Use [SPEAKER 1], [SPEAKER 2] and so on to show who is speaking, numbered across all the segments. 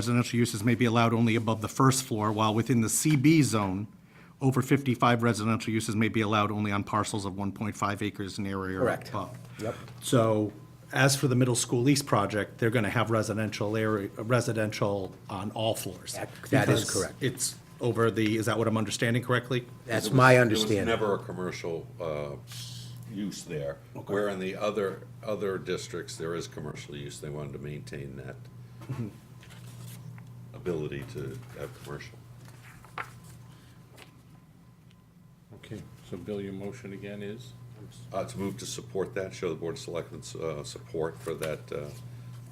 [SPEAKER 1] Residential uses may be allowed only above the first floor, while within the CB zone, over 55 residential uses may be allowed only on parcels of 1.5 acres in area or
[SPEAKER 2] Correct.
[SPEAKER 1] above.
[SPEAKER 2] Yep.
[SPEAKER 1] So as for the middle school east project, they're going to have residential area, residential on all floors.
[SPEAKER 2] That- that is
[SPEAKER 1] Because
[SPEAKER 2] correct.
[SPEAKER 1] It's over the, is that what I'm understanding correctly?
[SPEAKER 2] That's
[SPEAKER 3] There was-
[SPEAKER 2] my
[SPEAKER 3] There
[SPEAKER 2] understanding.
[SPEAKER 3] was never a commercial uh, use there, where in the other, other districts, there is commercial use. They wanted to maintain that
[SPEAKER 2] Mm-hmm.
[SPEAKER 3] ability to have commercial.
[SPEAKER 4] Okay, so Bill, your motion again is?
[SPEAKER 3] Uh, To move to support that, show the Board of Selectmen's uh, support for that uh,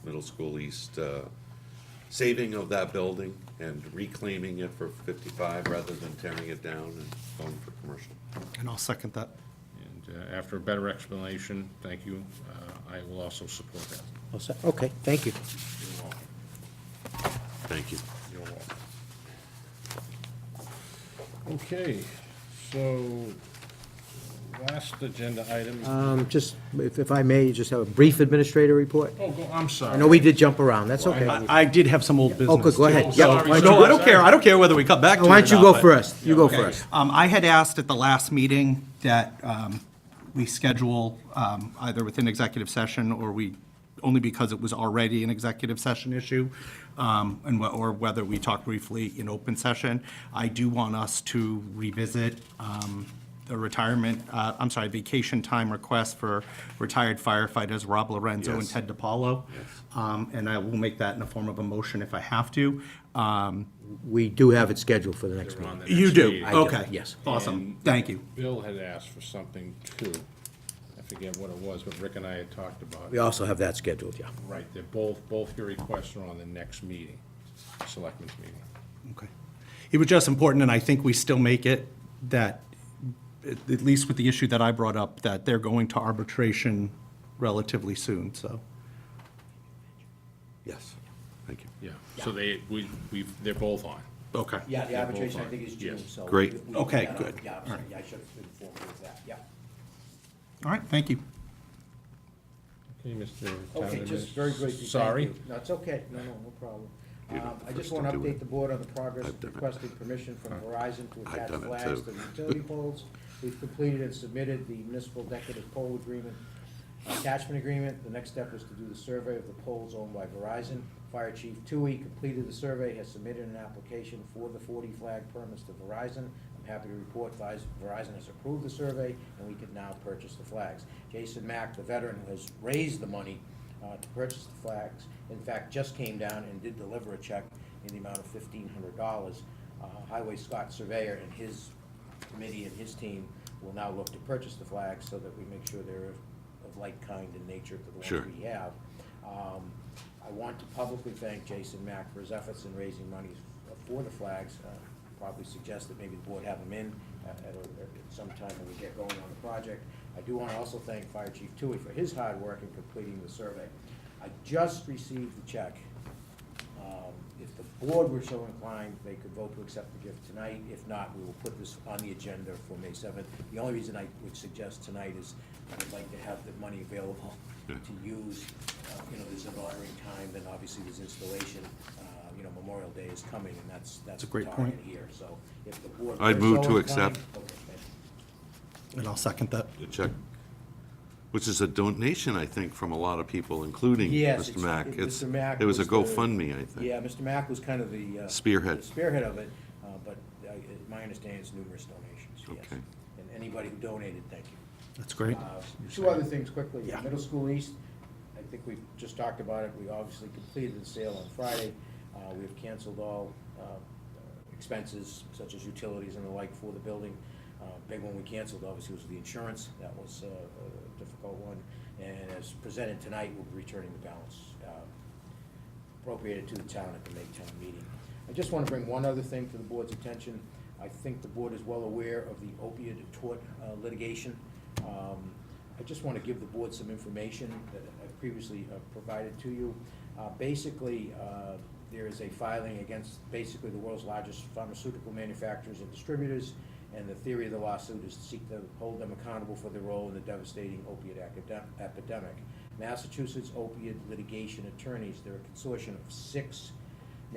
[SPEAKER 3] middle school east uh, saving of that building and reclaiming it for 55 rather than tearing it down and going for commercial.
[SPEAKER 1] And I'll second that.
[SPEAKER 4] And uh, after a better explanation, thank you, uh, I will also support that.
[SPEAKER 2] Oh, so- Okay, thank you.
[SPEAKER 4] You're welcome.
[SPEAKER 3] Thank you.
[SPEAKER 4] You're welcome. Okay, so last agenda item,
[SPEAKER 2] Um, Just, if if I may, just have a brief administrator report.
[SPEAKER 4] oh, go- I'm sorry.
[SPEAKER 2] I know we did jump around, that's okay.
[SPEAKER 1] I
[SPEAKER 2] Oh,
[SPEAKER 1] I did have some old business.
[SPEAKER 2] good, go
[SPEAKER 1] too.
[SPEAKER 2] ahead. Yeah,
[SPEAKER 4] sorry.
[SPEAKER 2] why don't
[SPEAKER 1] No,
[SPEAKER 2] you-
[SPEAKER 1] I don't care, I don't care whether we cut back to it
[SPEAKER 2] Why don't
[SPEAKER 1] or
[SPEAKER 2] you
[SPEAKER 1] not,
[SPEAKER 2] go
[SPEAKER 1] but-
[SPEAKER 2] first? You go first.
[SPEAKER 1] Um, I had asked at the last meeting that um, we schedule um, either within executive session or we, only because it was already an executive session issue, um, and, wh- or whether we talk briefly in open session. I do want us to revisit um, the retirement, uh, I'm sorry, vacation time request for retired firefighters Rob Lorenzo and
[SPEAKER 3] Yes.
[SPEAKER 1] Ted DiPaolo. Um, And I will make that in the form of a motion if I have to. Um,
[SPEAKER 2] We do have it scheduled for the next
[SPEAKER 4] We're on
[SPEAKER 2] meeting.
[SPEAKER 4] the
[SPEAKER 1] You
[SPEAKER 4] next
[SPEAKER 1] do,
[SPEAKER 4] meeting.
[SPEAKER 2] do,
[SPEAKER 1] okay.
[SPEAKER 2] yes.
[SPEAKER 1] Awesome, thank you.
[SPEAKER 4] Bill had asked for something too. I forget what it was, but Rick and I had talked about
[SPEAKER 2] We
[SPEAKER 4] it.
[SPEAKER 2] also have that scheduled, yeah.
[SPEAKER 4] Right, they're both, both your requests are on the next meeting, selectmen's meeting.
[SPEAKER 1] Okay. It was just important, and I think we still make it, that, at at least with the issue that I brought up, that they're going to arbitration relatively soon, so.
[SPEAKER 3] Yes. Thank you.
[SPEAKER 4] Yeah, so they, we, we, they're both on.
[SPEAKER 1] Okay.
[SPEAKER 5] Yeah, the
[SPEAKER 4] Yeah,
[SPEAKER 5] arbitration,
[SPEAKER 4] both
[SPEAKER 5] I
[SPEAKER 4] are.
[SPEAKER 5] think, is June,
[SPEAKER 4] Yes.
[SPEAKER 5] so.
[SPEAKER 3] Great.
[SPEAKER 5] we- we-
[SPEAKER 1] Okay,
[SPEAKER 5] yeah,
[SPEAKER 1] good.
[SPEAKER 5] Yeah, I'm
[SPEAKER 1] All
[SPEAKER 5] sorry,
[SPEAKER 1] right.
[SPEAKER 5] yeah, I should have informed you of that, yeah.
[SPEAKER 1] All right, thank you.
[SPEAKER 4] Okay, Mr. Town
[SPEAKER 5] Okay, just very
[SPEAKER 4] Administrator.
[SPEAKER 5] briefly. thank
[SPEAKER 4] Sorry.
[SPEAKER 5] you. No, it's okay, no, no, no problem.
[SPEAKER 3] You're not
[SPEAKER 5] Um,
[SPEAKER 3] the
[SPEAKER 5] I just
[SPEAKER 3] first
[SPEAKER 5] want to
[SPEAKER 3] to do it.
[SPEAKER 5] update the board on the progress
[SPEAKER 3] I've
[SPEAKER 5] of
[SPEAKER 3] done it.
[SPEAKER 5] requesting permission from Verizon to
[SPEAKER 3] I've
[SPEAKER 5] attach
[SPEAKER 3] done it
[SPEAKER 5] flags
[SPEAKER 3] too.
[SPEAKER 5] to utility poles. We've completed and submitted the municipal decorative pole agreement attachment agreement. The next step was to do the survey of the poles owned by Verizon. Fire Chief Tui completed the survey, has submitted an application for the forty flag permits to Verizon. I'm happy to report Verizon Verizon has approved the survey, and we can now purchase the flags. Jason Mack, the veteran who has raised the money uh, to purchase the flags, in fact, just came down and did deliver a check in the amount of fifteen hundred dollars. Uh, Highway Scott Surveyor and his committee and his team will now look to purchase the flags so that we make sure they're of like kind in nature to the
[SPEAKER 3] Sure.
[SPEAKER 5] ones we have. Um, I want to publicly thank Jason Mack for his efforts in raising money for the flags. Uh, Probably suggest that maybe the board have him in uh, at a- at some time when we get going on the project. I do want to also thank Fire Chief Tui for his hard work in completing the survey. I just received the check um, If the board were so inclined, they could vote to accept the gift tonight. If not, we will put this on the agenda for May 7th. The only reason I would suggest tonight is I'd like to have the money available to use. Uh, You know, there's a lowering time, then obviously there's installation. Uh, You know, Memorial Day is coming, and that's, that's
[SPEAKER 1] a great
[SPEAKER 5] the target
[SPEAKER 1] point.
[SPEAKER 5] here. So if the board
[SPEAKER 3] I'd
[SPEAKER 5] were
[SPEAKER 3] move
[SPEAKER 5] so
[SPEAKER 3] to
[SPEAKER 5] inclined-
[SPEAKER 3] accept.
[SPEAKER 5] Okay, thank you.
[SPEAKER 1] And I'll second that.
[SPEAKER 3] the check, which is a donation, I think, from a lot of people, including
[SPEAKER 5] Yes,
[SPEAKER 3] Mr.
[SPEAKER 5] it's-
[SPEAKER 3] Mack.
[SPEAKER 5] it-
[SPEAKER 3] It's-
[SPEAKER 5] Mr. Mack
[SPEAKER 3] It was a
[SPEAKER 5] the-
[SPEAKER 3] GoFundMe, I think.
[SPEAKER 5] Yeah, Mr. Mack was kind of the. uh,
[SPEAKER 3] Spearhead.
[SPEAKER 5] Spearhead of it, uh, but uh, it- my understanding is numerous donations, yes.
[SPEAKER 3] Okay.
[SPEAKER 5] And anybody who donated, thank you.
[SPEAKER 1] That's great.
[SPEAKER 5] Uh, Two other things quickly.
[SPEAKER 1] Yeah.
[SPEAKER 5] Middle School East, I think we just talked about it. We obviously completed the sale on Friday. Uh, We have canceled all uh, expenses such as utilities and the like for the building. Uh, Big one we canceled, obviously, was the insurance. That was uh, a difficult one. And as presented tonight, we'll be returning the balance uh, appropriated to the town at the May town meeting. I just want to bring one other thing to the board's attention. I think the board is well aware of the opioid tort uh, litigation. Um, I just want to give the board some information that I previously uh, provided to you. Uh, Basically, uh, there is a filing against basically the world's largest pharmaceutical manufacturers and distributors, and the theory of the lawsuit is to seek to hold them accountable for their role in the devastating opiate academ- epidemic. Massachusetts opiate litigation attorneys, they're a consortium of six